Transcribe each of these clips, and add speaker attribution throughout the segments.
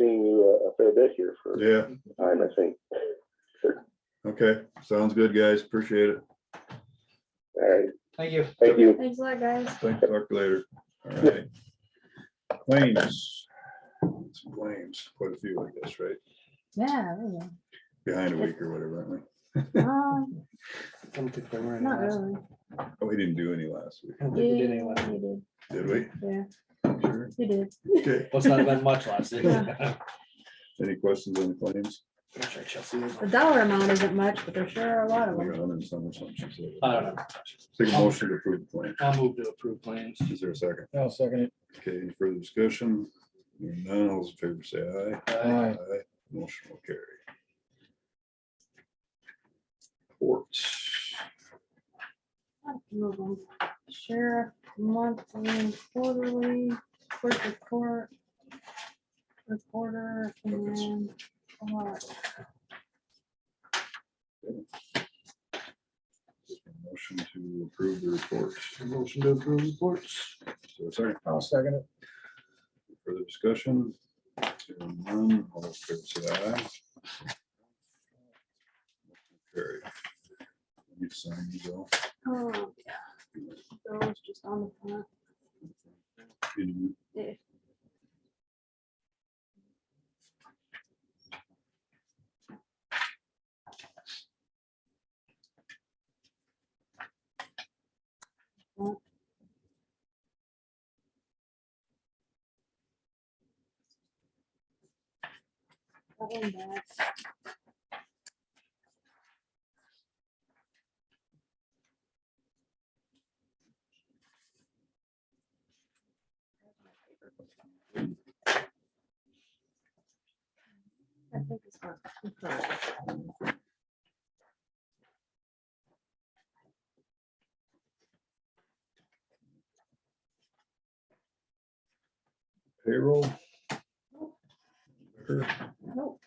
Speaker 1: uh, fair bit here for
Speaker 2: Yeah,
Speaker 1: time, I think.
Speaker 2: okay, sounds good, guys, appreciate it.
Speaker 1: All right,
Speaker 3: Thank you.
Speaker 1: thank you.
Speaker 4: Thanks a lot, guys.
Speaker 2: Thanks, talk later. All right. Claims. Some Claims, quite a few, I guess, right?
Speaker 4: Yeah. there you go.
Speaker 2: Behind a week or whatever, aren't we?
Speaker 4: Um, Not really.
Speaker 2: Oh, we didn't do any last week,
Speaker 4: Yeah, You
Speaker 2: did we?
Speaker 4: did. Yeah,
Speaker 2: Sure.
Speaker 4: you did.
Speaker 2: Okay,
Speaker 3: Well, it's not been much last week.
Speaker 4: Yeah.
Speaker 2: any questions on the claims?
Speaker 3: I'm sure Chelsea is-
Speaker 4: The dollar amount isn't much, but there sure are a lot of
Speaker 2: We
Speaker 4: them.
Speaker 2: got 100 and some or something, she said.
Speaker 3: I don't know.
Speaker 2: Take a motion to approve the claim.
Speaker 3: I'll move to approve claims.
Speaker 2: Is there a second?
Speaker 5: I'll second it.
Speaker 2: Okay, any further discussion? Hearing None, all those in favor say aye.
Speaker 5: Aye.
Speaker 2: Aye. Motion will carry. Reports.
Speaker 4: Move on. Sheriff monthly, quarterly, court report. Reporter and. uh,
Speaker 2: Motion to approve the report.
Speaker 3: Motion to approve reports.
Speaker 2: So sorry,
Speaker 5: I'll second it.
Speaker 2: further discussion. Hearing none, all those in favor say aye. Carry. You sign, you go.
Speaker 4: oh, yeah. Those just on the front.
Speaker 2: You
Speaker 4: Yeah. That one back. I think it's not.
Speaker 2: Payroll. Liquor,
Speaker 4: Nope.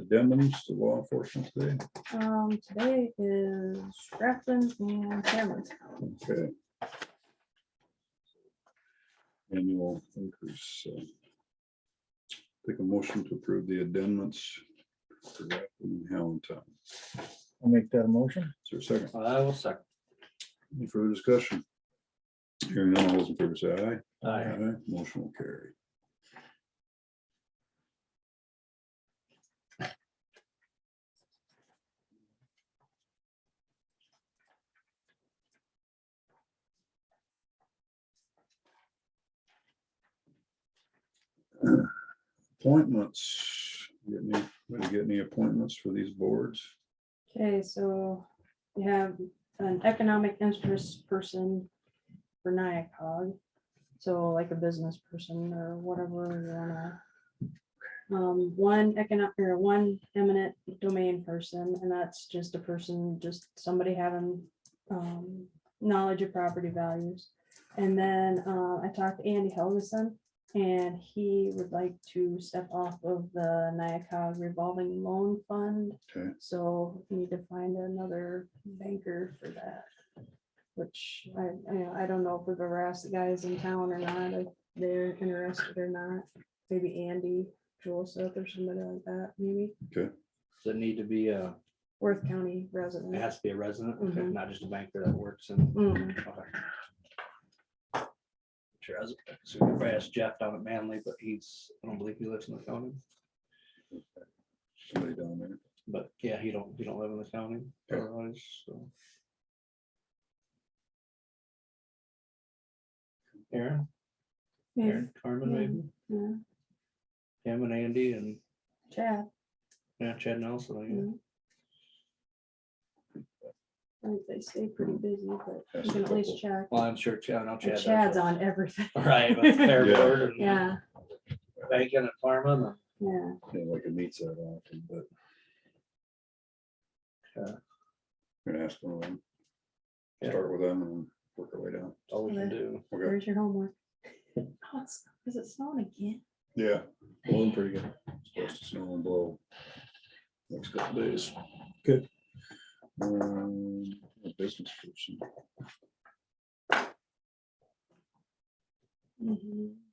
Speaker 2: Addendums to law enforcement today.
Speaker 4: Um, today is Grafton and Cameron's.
Speaker 2: Okay. Annual increase. so. Take a motion to approve the amendments. for that in Allentown.
Speaker 5: I'll make that a motion.
Speaker 2: Is there a second?
Speaker 3: I will second.
Speaker 2: Any further discussion? Hearing none, all those in favor say aye.
Speaker 3: Aye.
Speaker 2: Motion will carry. Appointments, get any, anybody get any appointments for these boards?
Speaker 4: Okay, so we have an economic interest person for NIACOG. So like a business person or whatever you wanna. Um, one economic, or one eminent domain person, and that's just a person, just somebody having um, knowledge of property values. And then uh, I talked to Andy Helgeson, and he would like to step off of the NIACOG revolving loan fund.
Speaker 2: Okay.
Speaker 4: So we need to find another banker for that. Which I, I know- I don't know if we've ever asked the guys in town or not, if they're interested or not. Maybe Andy Joseph or somebody like that, maybe
Speaker 3: Does it need to be a,
Speaker 4: Worth County
Speaker 3: it
Speaker 4: resident.
Speaker 3: has to be a resident, okay,
Speaker 4: Mhm.
Speaker 3: not just a banker that works in?
Speaker 4: Mm,
Speaker 3: Okay. Sure, I was, so we asked Jeff down at Manly, but he's, I don't believe he lives in the county,
Speaker 2: Somebody down there.
Speaker 3: but yeah, he don't, he don't live in the county.
Speaker 2: Okay.
Speaker 3: otherwise, so. Aaron,
Speaker 4: yeah,
Speaker 3: Aaron, Carmen, maybe,
Speaker 4: yeah,
Speaker 3: him and Andy and
Speaker 4: Chad.
Speaker 3: yeah, Chad Nelson, I guess.
Speaker 4: Mhm. I think they stay pretty busy, but
Speaker 2: Ask
Speaker 4: you
Speaker 2: a
Speaker 4: can at least
Speaker 2: couple.
Speaker 4: check.
Speaker 3: Well, I'm sure Chad, I know
Speaker 4: And
Speaker 3: Chad. does
Speaker 4: Chad's
Speaker 3: it.
Speaker 4: on everything.
Speaker 3: Right, with Fair
Speaker 2: Yeah.
Speaker 3: Board and
Speaker 4: Yeah,
Speaker 3: Bacon and Farman.
Speaker 4: yeah.
Speaker 2: Yeah, like it meets that often, but.
Speaker 3: Yeah.
Speaker 2: Gonna ask one of them.
Speaker 3: Yeah.
Speaker 2: Start with them and work our way down.
Speaker 3: All we can
Speaker 4: Yeah.
Speaker 3: do.
Speaker 2: Okay,
Speaker 4: Where's your homework? Oh, it's, is it snowing again?
Speaker 2: yeah, blowing pretty good. Supposed to snow and blow. Next couple days. Good. Um, a Business person.
Speaker 4: Mhm.